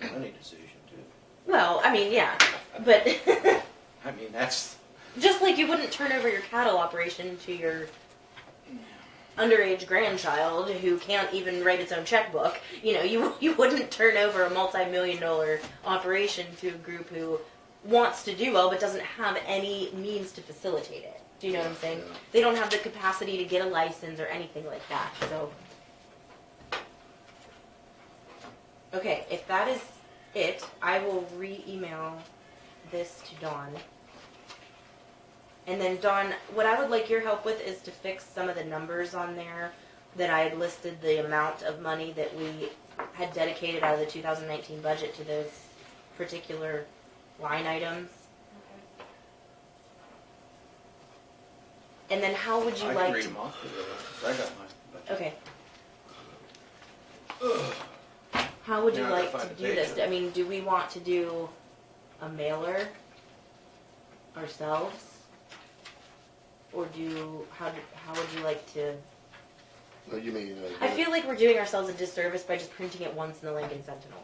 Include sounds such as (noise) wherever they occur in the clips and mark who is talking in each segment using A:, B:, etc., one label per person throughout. A: It's a money decision too.
B: Well, I mean, yeah, but (laughs)
A: I mean, that's,
B: just like you wouldn't turn over your cattle operation to your underage grandchild who can't even write its own checkbook, you know, you (laughs) you wouldn't turn over a multi-million dollar operation to a group who wants to do well but doesn't have any means to facilitate it. Do you know what I'm saying?
A: Yeah.
B: They don't have the capacity to get a license or anything like that. So Okay, if that is it, I will re-email this to Dawn. And then Dawn, what I would like your help with is to fix some of the numbers on there that I had listed the amount of money that we had dedicated out of the two thousand nineteen budget to those particular line items. And then how would you
A: I can
B: like
A: read
B: to?
A: them off. if you want. I got mine. but-
B: Okay. How would you
A: Now I
B: like
A: gotta
B: to
A: find a
B: do this?
A: page.
B: I mean, do we want to do a mailer ourselves? Or do, how, do- how would you like to?
C: No, you mean. uh,
B: I feel like we're doing ourselves a disservice by just printing it once in the Lincoln Sentinel.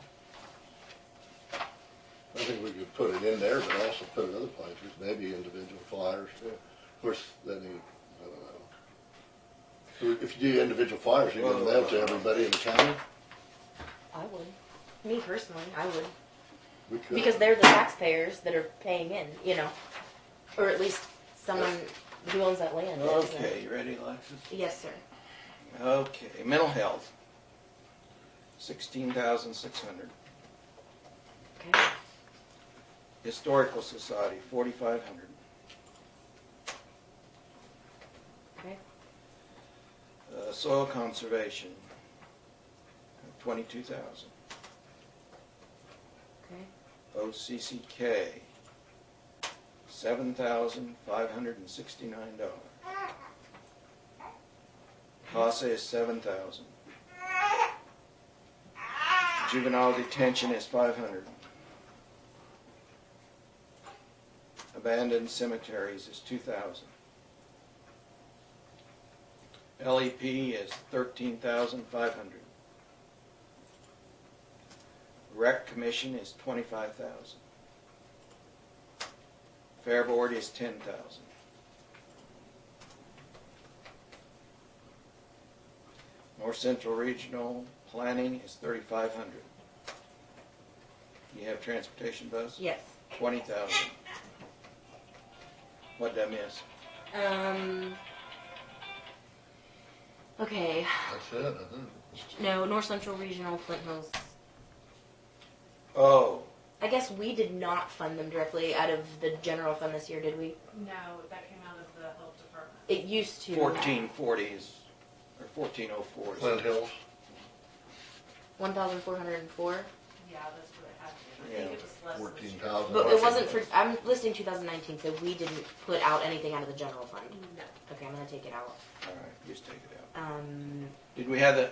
C: I think we could put it in there, but also put it other places, maybe individual flyers. Of course, that need, I don't know. If you do individual flyers, you can mail to everybody in the county.
B: I would. Me personally, I would.
C: We could.
B: Because they're the taxpayers that are paying in, you know? Or at least someone who owns that land. is, and-
A: Okay, you ready, Alexis?
B: Yes, sir.
A: Okay, mental health. Sixteen thousand six hundred.
B: Okay.
A: Historical Society, forty-five hundred.
B: Okay.
A: Uh, soil conservation, twenty-two thousand.
B: Okay.
A: OCCK, seven thousand five hundred and sixty-nine dollars. CASA is seven thousand. Juvenile detention is five hundred. Abandoned cemeteries is two thousand. LEP E is thirteen thousand five hundred. Rec commission is twenty-five thousand. Fair board is ten thousand. North Central Regional Planning is thirty-five hundred. You have transportation bus,
B: Yes.
A: twenty thousand. What'd I miss?
B: Um. Okay.
C: That's it, I think.
B: No, North Central Regional Flint Hills.
A: Oh,
B: I guess we did not fund them directly out of the general fund this year, did we?
D: No, that came out of the health department.
B: It used to.
A: fourteen forties, or fourteen oh fours.
C: Flint Hills,
B: One thousand four hundred and four.
D: Yeah, that's what it had to be. I think it was less than
C: fourteen thousand.
B: But it wasn't for. I'm listing 2019, so we didn't put out anything out of the general fund.
D: No,
B: Okay, I'm gonna take it out.
A: All right, just take it out.
B: Um.
A: Did we have the,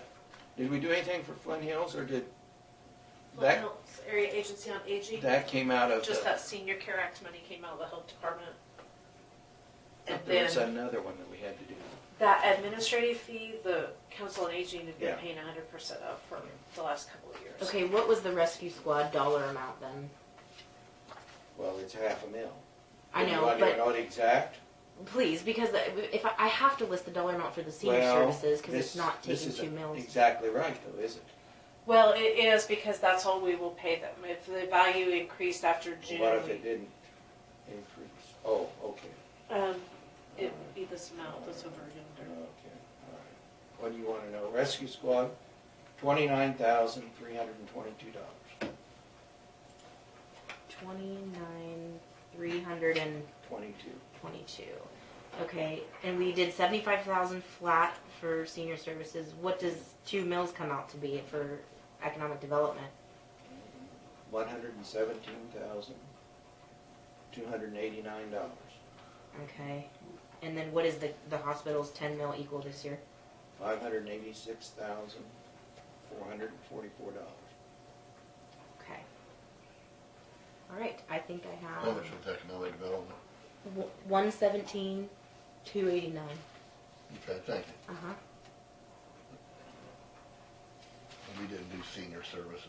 A: did we do anything for Flint Hills or did,
D: Flint
A: that,
D: Hills Area Agency on Aging,
A: that came out of
D: just
A: the,
D: that Senior Care Act money came out of the health department. And
A: there was
D: then
A: another one that we had to do.
D: that administrative fee, the Council on Aging had
A: Yeah.
D: been paying hundred percent of for the last couple of years.
B: Okay, what was the rescue squad dollar amount then?
A: Well, it's half a mil.
B: I
A: Do you
B: know,
A: want to
B: but
A: know the exact?
B: please, because if I, I have to list the dollar amount for the senior
A: Well,
B: services, because it's
A: this-
B: not
A: this
B: taking two
A: isn't
B: mills.
A: Exactly right though, is it?
D: Well, it is because that's all we will pay them. If the value increased after June,
A: What if it didn't increase? Oh, okay,
D: um, it'd be this amount that's over
A: okay,
D: yonder.
A: all right. What do you want to know? Rescue squad, twenty-nine thousand, three hundred and twenty-two dollars,
B: Twenty-nine, three hundred and
A: twenty-two.
B: twenty-two. Okay, and we did seventy-five thousand flat for senior services. What does two mills come out to be for economic development?
A: One hundred and seventeen thousand, two hundred and eighty-nine dollars.
B: Okay, and then what is the, the hospital's ten mil equal this year?
A: Five hundred and eighty-six thousand, four hundred and forty-four dollars.
B: Okay. All right, I think I have.
C: How much was economic development?
B: One seventeen, two eighty-nine.
C: Okay, thank you.
B: Uh-huh.
C: We didn't do senior services.